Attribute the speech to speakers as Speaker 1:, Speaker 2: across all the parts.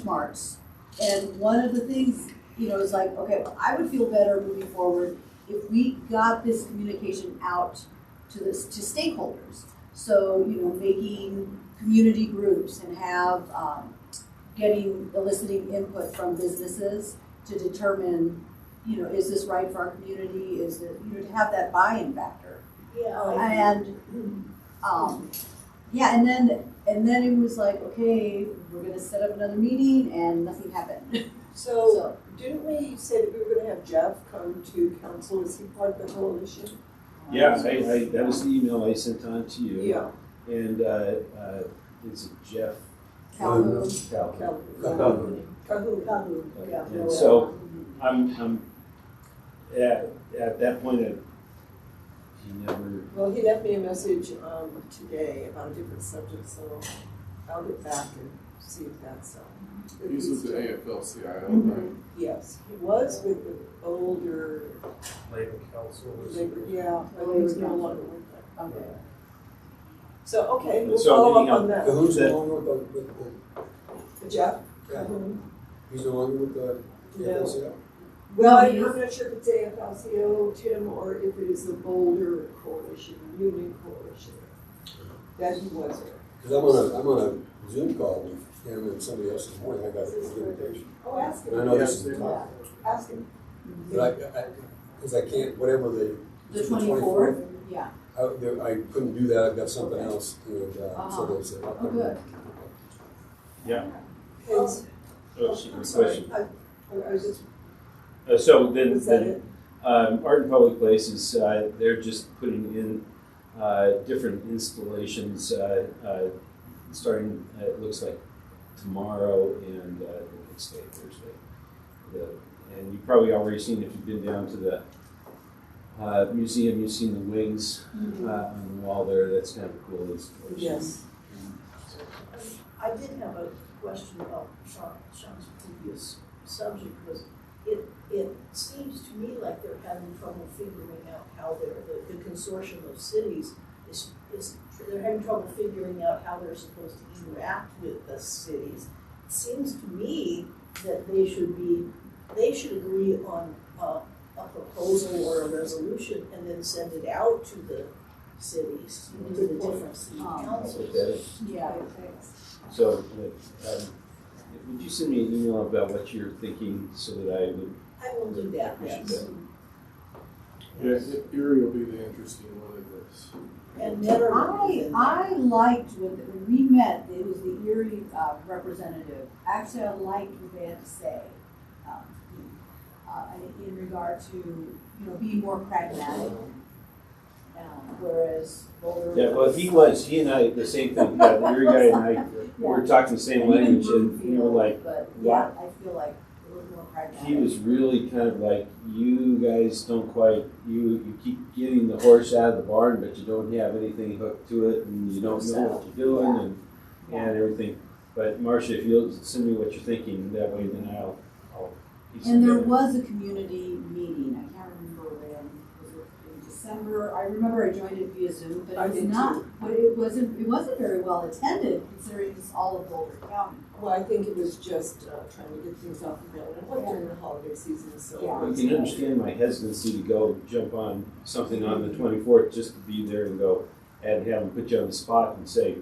Speaker 1: benchmarks. And one of the things, you know, is like, okay, I would feel better moving forward if we got this communication out to this, to stakeholders. So, you know, making community groups and have, um, getting, eliciting input from businesses to determine, you know, is this right for our community? Is it, you know, to have that buy-in factor.
Speaker 2: Yeah.
Speaker 1: And, um, yeah, and then, and then it was like, okay, we're gonna set up another meeting and nothing happened.
Speaker 2: So,
Speaker 1: So,
Speaker 2: didn't we say that we were gonna have Jeff come to council, is he part of the coalition?
Speaker 1: um,
Speaker 3: Yeah, I, I, that was the email I sent on to you.
Speaker 2: Yeah.
Speaker 3: And, uh, uh, it's Jeff.
Speaker 1: Calhoun.
Speaker 3: Calhoun.
Speaker 2: Calhoun,
Speaker 3: Calhoun.
Speaker 2: Calhoun, Calhoun, yeah.
Speaker 3: And so, I'm, I'm, at, at that point, I, he never,
Speaker 2: Well, he left me a message, um, today about a different subject, so I'll get back and see if that's, um. if
Speaker 4: He's with the
Speaker 2: still-
Speaker 4: AFL-CIO, right?
Speaker 1: Mhm.
Speaker 2: Yes, he was with the older,
Speaker 5: labor council or
Speaker 2: labor,
Speaker 5: something.
Speaker 2: yeah, but he was no longer with them.
Speaker 1: Okay.
Speaker 2: So, okay, we'll
Speaker 3: So,
Speaker 2: follow up
Speaker 3: anyhow,
Speaker 2: on that.
Speaker 6: Who's
Speaker 3: That-
Speaker 6: no longer with the, with
Speaker 2: Jeff?
Speaker 6: the, yeah,
Speaker 2: Calhoun?
Speaker 6: he's no longer with the,
Speaker 2: No.
Speaker 6: yeah, yeah.
Speaker 2: Well,
Speaker 1: No,
Speaker 2: I'm
Speaker 1: it is-
Speaker 2: not sure if it's AFL-CIO, Tim, or if it is the Boulder Coalition, Union Coalition, that he was with.
Speaker 6: Cause I'm on a, I'm on a Zoom call with him and somebody else this morning, I got his invitation.
Speaker 2: Oh, ask
Speaker 6: And I
Speaker 3: Uh,
Speaker 2: him,
Speaker 6: know this is the top,
Speaker 2: ask him.
Speaker 6: but I, I, cause I can't, whatever the,
Speaker 1: The
Speaker 6: The
Speaker 1: twenty-fourth, yeah,
Speaker 6: I, there- I couldn't do that, I've got something else, and, uh, so
Speaker 1: Uh-huh.
Speaker 6: that's it.
Speaker 1: oh, good.
Speaker 2: And-
Speaker 3: oh, she,
Speaker 2: I'm
Speaker 3: my
Speaker 2: sorry,
Speaker 3: question.
Speaker 2: I, I was just,
Speaker 3: Uh, so then,
Speaker 2: was that
Speaker 3: then
Speaker 2: it?
Speaker 3: Um, Art in Public Places, uh, they're just putting in uh, different installations, uh, uh, starting, uh, it looks like tomorrow and uh, the next day, Thursday. The, and you've probably already seen, if you've been down to the uh, museum, you've seen the wings
Speaker 7: Mm-hmm.
Speaker 3: uh, on the wall there. That's kind of a cool installation.
Speaker 2: Yes.
Speaker 7: I did have a question about Sean, Sean's previous subject was, it, it seems to me like they're having trouble figuring out how they're, the, the consortium of cities is, is, they're having trouble figuring out how they're supposed to interact with the cities. It Seems to me that they should be, they should agree on, uh, a proposal or a resolution and then send it out to the cities, to the different city
Speaker 2: Oh.
Speaker 1: Um,
Speaker 3: I'll
Speaker 7: councils.
Speaker 3: put that in.
Speaker 1: Yeah,
Speaker 3: So, uh, um, would you send me an email about what you're thinking so that I would
Speaker 7: I will do that,
Speaker 3: appreciate
Speaker 7: yes.
Speaker 3: that?
Speaker 4: Yeah, Erie will be the interesting one of this.
Speaker 7: And never.
Speaker 1: I, I liked when, when we met, it was the Erie uh, representative, actually, I liked what they had to say. um, uh, in regard to, you know, being more pragmatic. Um, Whereas Boulder.
Speaker 3: Yeah, well, he was, he and I, the same thing, yeah, the Erie guy and I, we were talking the
Speaker 1: And
Speaker 3: same
Speaker 1: even
Speaker 3: language, and we were
Speaker 1: Broomfield,
Speaker 3: like,
Speaker 1: But, yeah,
Speaker 3: "Wow."
Speaker 1: I feel like a little more pragmatic.
Speaker 3: he was really kind of like, you guys don't quite, you, you keep getting the horse out of the barn, but you don't have anything hooked to it, and you don't know what you're doing, and,
Speaker 1: Yeah.
Speaker 3: and everything. But Marcia, if you'll send me what you're thinking, that way then I'll, I'll. piece
Speaker 1: And there
Speaker 3: together.
Speaker 1: was a community meeting, I can't remember when, was it in December? I remember I joined it via Zoom, but
Speaker 2: I
Speaker 1: it was
Speaker 2: did
Speaker 1: not, but it wasn't, it wasn't very well attended considering it's all of Boulder County.
Speaker 2: Well, I think it was just, uh, trying to get things off the ground, it was during the holiday season, so.
Speaker 1: Yeah.
Speaker 3: You can understand my hesitancy to go jump on something on the twenty-fourth, just to be there and go, and have them put you on the spot and say,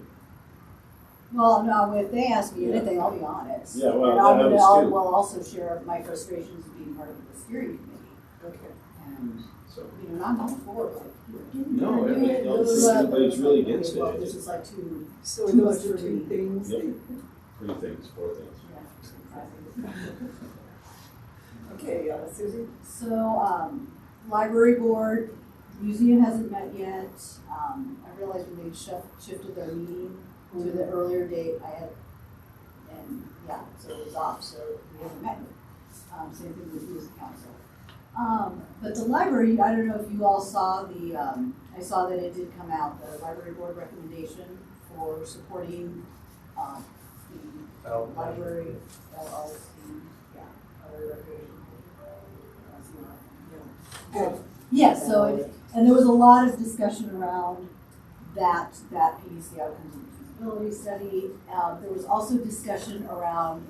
Speaker 1: Well, no, if they ask me anything, I'll be honest.
Speaker 3: Yeah, well,
Speaker 1: And I'll-
Speaker 3: that I was
Speaker 1: I'll-
Speaker 3: too.
Speaker 1: Will also share my frustrations of being part of the steering committee
Speaker 2: Okay.
Speaker 1: and,
Speaker 3: so.
Speaker 1: you know, not going forward, like, you're doing,
Speaker 3: No,
Speaker 1: you're
Speaker 3: I
Speaker 1: doing
Speaker 3: don't
Speaker 1: it,
Speaker 3: think
Speaker 1: blah, blah, blah.
Speaker 3: anybody's really against it,
Speaker 1: Well,
Speaker 3: I
Speaker 1: This
Speaker 3: think.
Speaker 1: is like two,
Speaker 2: So those are two things,
Speaker 3: Yep.
Speaker 2: that-
Speaker 3: Three things, four things.
Speaker 1: yeah, exactly.
Speaker 2: okay, uh, Susie?
Speaker 1: So, um, library board, museum hasn't met yet. Um, I realized when they shif- shifted their meeting to the earlier date, I had, and yeah, so it was off, so we haven't met yet. Um, same thing with youth council. Um, but the library, I don't know if you all saw the, um, I saw that it did come out, the library board recommendation for supporting, um, the
Speaker 5: Out-
Speaker 1: Library, LLC, yeah, library recreation. That's not-
Speaker 2: Good.
Speaker 1: Yeah, so, it- and there was a lot of discussion around Um, that, that piece, the outcomes of the feasibility study. Uh, there was also discussion around